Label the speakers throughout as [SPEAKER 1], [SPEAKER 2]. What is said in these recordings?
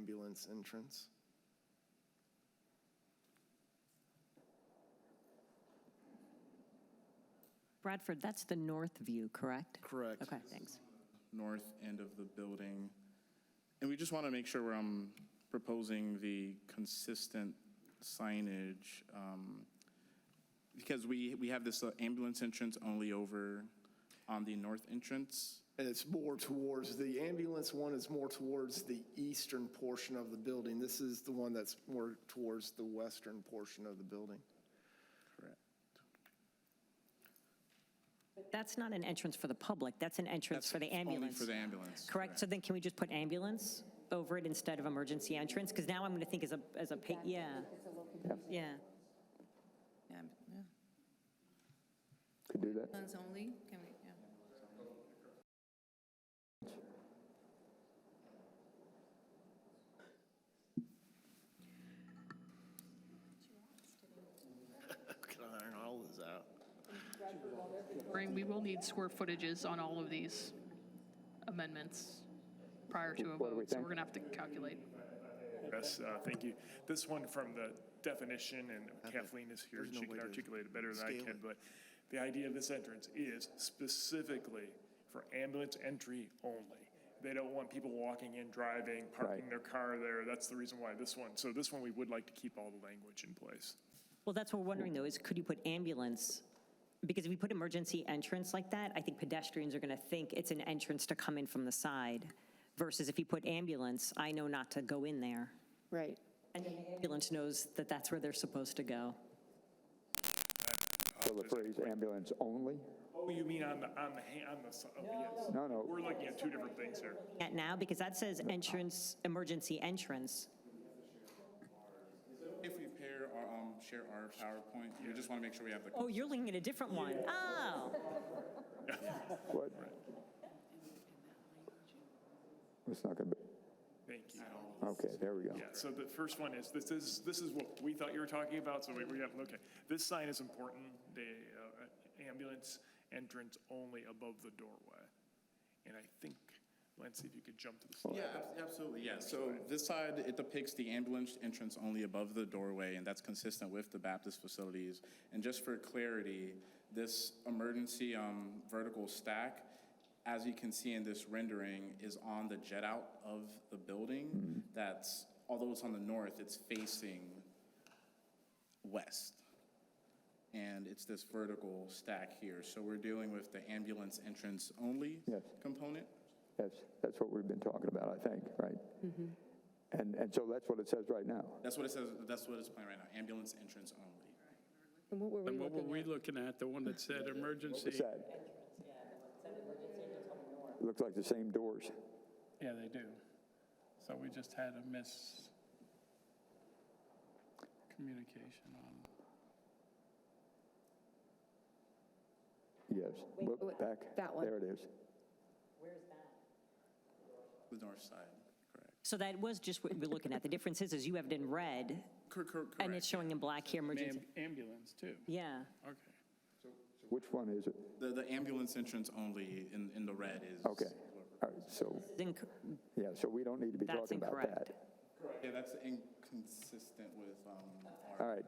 [SPEAKER 1] entrance, entrance.
[SPEAKER 2] Bradford, that's the north view, correct?
[SPEAKER 1] Correct.
[SPEAKER 2] Okay, thanks.
[SPEAKER 3] north end of the building. And we just want to make sure where I'm proposing the consistent signage, um, because we, we have this uh, ambulance entrance only over on the north entrance.
[SPEAKER 1] And it's more towards, the ambulance one is more towards the eastern portion of the building. This is the one that's more towards the western portion of the building.
[SPEAKER 3] Correct.
[SPEAKER 2] That's not an entrance for the public, that's an entrance
[SPEAKER 3] That's
[SPEAKER 2] for the
[SPEAKER 3] Only
[SPEAKER 2] ambulance.
[SPEAKER 3] for the ambulance.
[SPEAKER 2] Correct, so then can we just put ambulance over it instead of emergency entrance? Because now I'm going to think as a, as a, pa- yeah, yeah.
[SPEAKER 4] Yeah, yeah.
[SPEAKER 5] Could do that.
[SPEAKER 4] Guns only, can we, yeah.
[SPEAKER 1] Can I iron all this out?
[SPEAKER 6] Maureen, we will need square footages on all of these amendments prior to a
[SPEAKER 5] What do we
[SPEAKER 6] vote, so
[SPEAKER 5] think?
[SPEAKER 6] we're going to have to calculate.
[SPEAKER 7] Yes, uh, thank you. This one from the definition, and Kathleen is here,
[SPEAKER 1] There's no way
[SPEAKER 7] she can
[SPEAKER 1] to
[SPEAKER 7] articulate it better than I
[SPEAKER 1] scale
[SPEAKER 7] can,
[SPEAKER 1] it.
[SPEAKER 7] but the idea of this entrance is specifically for ambulance entry only. They don't want people walking in, driving, parking
[SPEAKER 5] Right.
[SPEAKER 7] their car there. That's the reason why this one, so this one, we would like to keep all the language in place.
[SPEAKER 2] Well, that's what we're wondering, though, is could you put ambulance? Because if we put emergency entrance like that, I think pedestrians are going to think it's an entrance to come in from the side, versus if you put ambulance, I know not to go in there.
[SPEAKER 8] Right.
[SPEAKER 2] And the ambulance knows that that's where they're supposed to go.
[SPEAKER 5] So the phrase ambulance only?
[SPEAKER 7] Oh, you mean on the, on the, ha- on the, s- oh, yes.
[SPEAKER 5] No, no.
[SPEAKER 7] We're looking at two different things here.
[SPEAKER 2] At now, because that says entrance, emergency entrance.
[SPEAKER 3] If we pair our, um, share our PowerPoint, we just want to make sure we have the.
[SPEAKER 2] Oh, you're looking at a different one. Oh,
[SPEAKER 5] What? It's not going to be,
[SPEAKER 7] Thank you.
[SPEAKER 5] okay, there we go.
[SPEAKER 7] Yeah, so the first one is, this is, this is what we thought you were talking about, so we, we got, okay. This sign is important, the uh, ambulance entrance only above the doorway. And I think, Lance, if you could jump to the slide.
[SPEAKER 3] Yeah, abs- absolutely, yeah. So this side, it depicts the ambulance entrance only above the doorway, and that's consistent with the Baptist facilities. And just for clarity, this emergency um, vertical stack, as you can see in this rendering, is on the jet out of the building. That's, although it's on the north, it's facing west. And it's this vertical stack here. So we're dealing with the ambulance entrance only
[SPEAKER 5] Yes.
[SPEAKER 3] component.
[SPEAKER 5] That's, that's what we've been talking about, I think, right? And, and so that's what it says right now.
[SPEAKER 3] That's what it says, that's what it's playing right now, ambulance entrance only.
[SPEAKER 8] And what were we
[SPEAKER 9] And what were
[SPEAKER 8] looking
[SPEAKER 9] we
[SPEAKER 8] at?
[SPEAKER 9] looking at, the one that said
[SPEAKER 5] What's
[SPEAKER 9] emergency?
[SPEAKER 5] that? Looks like the same doors.
[SPEAKER 9] Yeah, they do. So we just had a miscommunication on,
[SPEAKER 5] Yes.
[SPEAKER 8] Wait,
[SPEAKER 5] Look
[SPEAKER 8] wait,
[SPEAKER 5] back.
[SPEAKER 8] that one.
[SPEAKER 5] There it is.
[SPEAKER 3] The north side, correct.
[SPEAKER 2] so that was just what we were looking at. The difference is, is you have it in red,
[SPEAKER 3] Cor- cor- Correct.
[SPEAKER 2] and it's showing in black here, emergency.
[SPEAKER 9] Am- ambulance too.
[SPEAKER 2] Yeah.
[SPEAKER 9] Okay.
[SPEAKER 5] Which one is it?
[SPEAKER 3] The, the ambulance entrance only in, in the red is.
[SPEAKER 5] Okay. All right, so,
[SPEAKER 2] Then c-
[SPEAKER 5] yeah, so we don't need to be
[SPEAKER 2] That's
[SPEAKER 5] talking about
[SPEAKER 2] incorrect.
[SPEAKER 5] that.
[SPEAKER 3] Yeah, that's inconsistent with, um, our.
[SPEAKER 5] All right.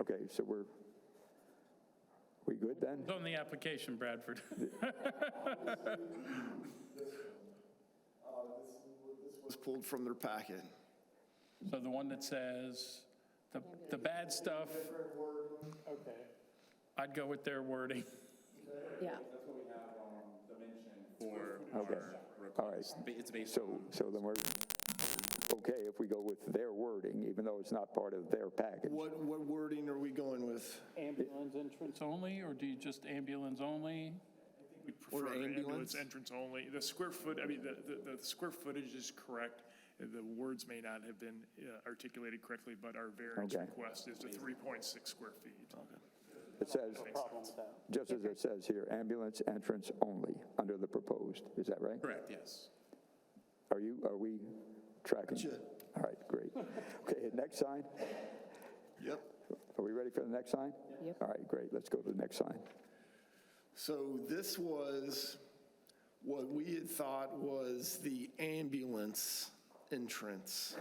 [SPEAKER 5] Okay, so we're, we good then?
[SPEAKER 9] It's on the application, Bradford.
[SPEAKER 1] It was pulled from their packet.
[SPEAKER 9] So the one that says, the, the bad stuff. Okay. I'd go with their wording.
[SPEAKER 8] Yeah.
[SPEAKER 3] That's what we have, um, dimension. For
[SPEAKER 5] Okay.
[SPEAKER 3] our request.
[SPEAKER 5] All right.
[SPEAKER 3] Ba- It's based
[SPEAKER 5] So,
[SPEAKER 3] on.
[SPEAKER 5] so then we're, okay, if we go with their wording, even though it's not part of their package.
[SPEAKER 1] What, what wording are we going with?
[SPEAKER 9] Ambulance entrance only, or do you just ambulance only?
[SPEAKER 7] We prefer
[SPEAKER 1] ambulance?
[SPEAKER 7] ambulance entrance only. The square foot, I mean, the, the, the square footage is correct. The words may not have been uh, articulated correctly, but our variance
[SPEAKER 5] Okay.
[SPEAKER 7] request is to 3.6 square feet.
[SPEAKER 5] It says, just as it says here, ambulance entrance only, under the proposed. Is that right?
[SPEAKER 3] Correct, yes.
[SPEAKER 5] Are you, are we tracking?
[SPEAKER 1] Gotcha.
[SPEAKER 5] All right, great. Okay, next sign?
[SPEAKER 1] Yep.
[SPEAKER 5] Are we ready for the next sign?
[SPEAKER 8] Yep.
[SPEAKER 5] All right, great, let's go to the next sign.
[SPEAKER 1] So this was what we had thought was the ambulance entrance.